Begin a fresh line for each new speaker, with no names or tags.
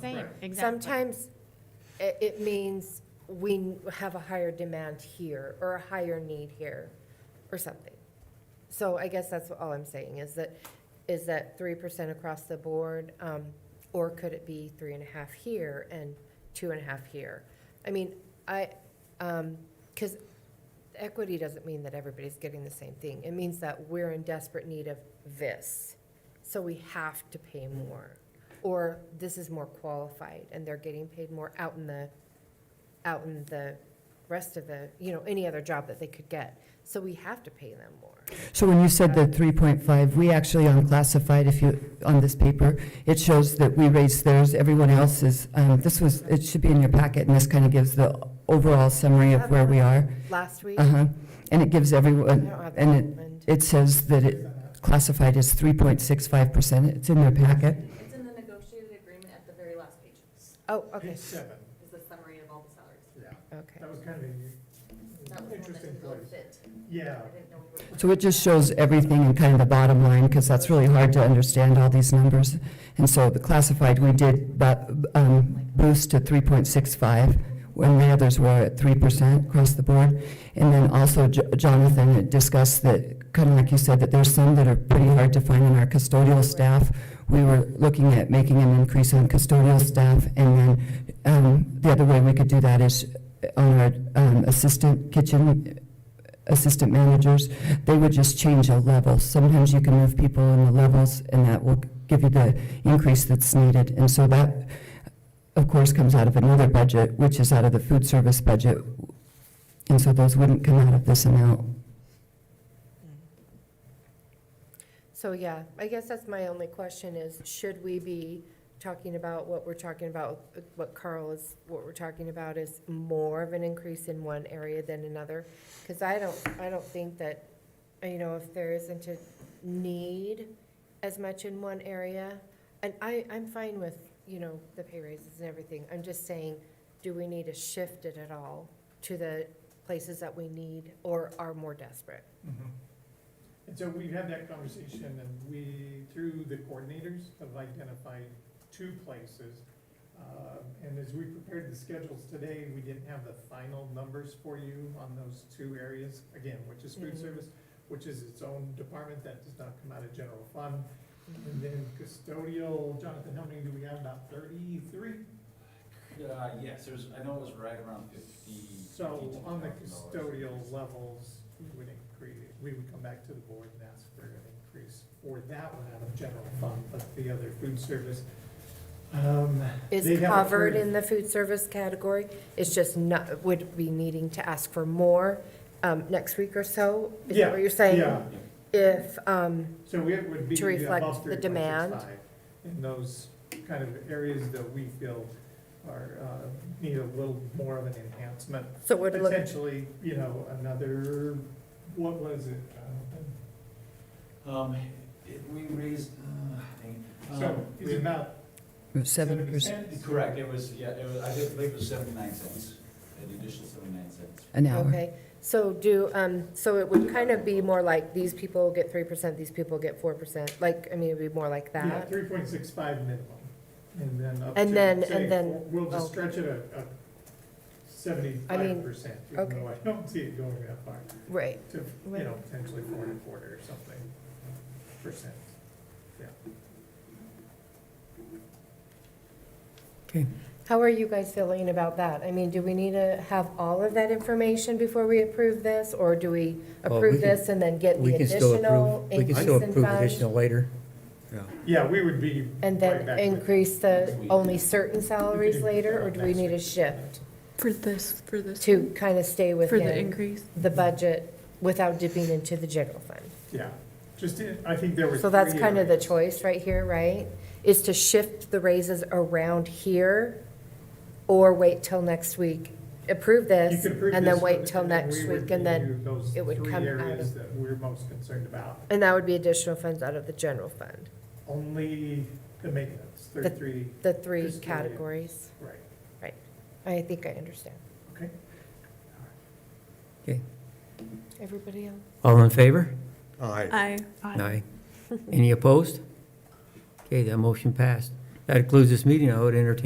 saying, exactly.
Sometimes it, it means we n- have a higher demand here, or a higher need here, or something. So I guess that's all I'm saying, is that, is that three percent across the board, um, or could it be three and a half here and two and a half here? I mean, I, um 'cause cause equity doesn't mean that everybody's getting the same thing, it means that we're in desperate need of this, so we have to pay more or this is more qualified and they're getting paid more out in the, out in the rest of the, you know, any other job that they could get. So we have to pay them more.
So when you said the 3.5, we actually unclassified, if you, on this paper, it shows that we raised theirs, everyone else's, um, this was, it should be in your packet, and this kind of gives the overall summary of where we are.
Last week, I
Uh-huh, and it gives
don't
everyone,
have that
and
one.
it, it says that it classified as 3.65%, it's in their packet.
It's in the negotiated agreement at the very last page, is
Oh, okay,
Page seven,
the summary of all the salaries.
yeah,
okay.
that was kind of
That was
an
the one that
interesting
didn't
place.
fit.
Yeah,
I didn't know we were.
So it just shows everything in kind of the bottom line, because that's really hard to understand all these numbers. And so the classified, we did bu- um, boost to 3.65, when the others were at 3% across the board. And then also Jo- Jonathan had discussed that, kind of like you said, that there's some that are pretty hard to find in our custodial staff. We were looking at making an increase in custodial staff, and then um, the other way we could do that is on our um, assistant kitchen assistant managers, they would just change a level. Sometimes you can move people in the levels, and that will give you the increase that's needed. And so that, of course, comes out of another budget, which is out of the food service budget. And so those wouldn't come out of this amount.
So, yeah, I guess that's my only question is, should we be talking about what we're talking about, what Carl is, what we're talking about is more of an increase in one area than another? Because I don't, I don't think that, you know, if there isn't a need as much in one area, and I, I'm fine with, you know, the pay raises and everything, I'm just saying, do we need to shift it at all to the places that we need or are more desperate?
Mhm. And so we've had that conversation and we, through the coordinators, have identified two places. Uh, And as we prepared the schedules today, we didn't have the final numbers for you on those two areas, again, which is
Mm-hmm.
food
Mhm.
service, which is its own department that does not come out of general fund.
Mm-hmm.
And then custodial, Jonathan, how many do we have? About thirty-three?
Uh, yes, there's, I know it was right around fifty.
So on the
52,000
custodial levels, we would increase, we would come back to the board and ask for an increase for that one out of general fund, but the other food service. um, they
is
haven't
covered
heard-
in the food service category. It's just not, would be needing to ask for more um, next week or so? Is that what you're saying?
Yeah,
If, um,
so it would be
To reflect
above
the
3.65
demand.
In those kind of areas that we feel are, uh, need a little more of an enhancement.
so it would look,
Potentially, you know, another, what was it, Jonathan?
Um, it, we raised, uh, dang it.
So
Um,
it's about
Seven percent
Correct, it was, yeah, it was, I did believe it was seventy-nine cents, an additional seventy-nine cents.
an hour.
okay. So do, um, so it would kind of be more like, these people get three percent, these people get four percent? Like, I mean, it'd be more like
Yeah,
that?
three point six five minimum, and then up to.
And then-
say,
and then- oh.
We'll just
okay.
stretch it a, a seventy-five percent, even
okay.
though I don't see it going that far,
Right.
to, you
Right.
know, potentially four and a quarter or something percent.
Okay.
How are you guys feeling about that? I mean, do we need to have all of that information before we approve this? Or do we
Well, we
approve
can-
this and then get the
We can still
additional
approve, we can
increase in funds?
still approve additional later.
Yeah, we would be
And
right
then
back with-
increase the
Next week.
only certain salaries later, or do we
Next
need a
week.
shift
For this, for this,
to kind of stay
for the
within
increase?
the budget without dipping into the general fund?
Yeah, just, in- I think there were.
So that's
three
kind of the
areas.
choice right here, right? Is to shift the raises around here, or wait till next week, approve
You
this,
could approve
and then
this
wait
one,
till
and then
next
we would
week, and then,
review those
it would come out
Three areas
of-
that we're most concerned about,
and that would be additional funds out of the general fund,
only the maintenance,
The-
thirty-three,
the three
Just the-
categories.
right,
I think I understand.
okay?
Everybody else?
All in favor?
Aye.
Aye.
Aye. Any opposed? Okay, that motion passed. That concludes this meeting. I would entertain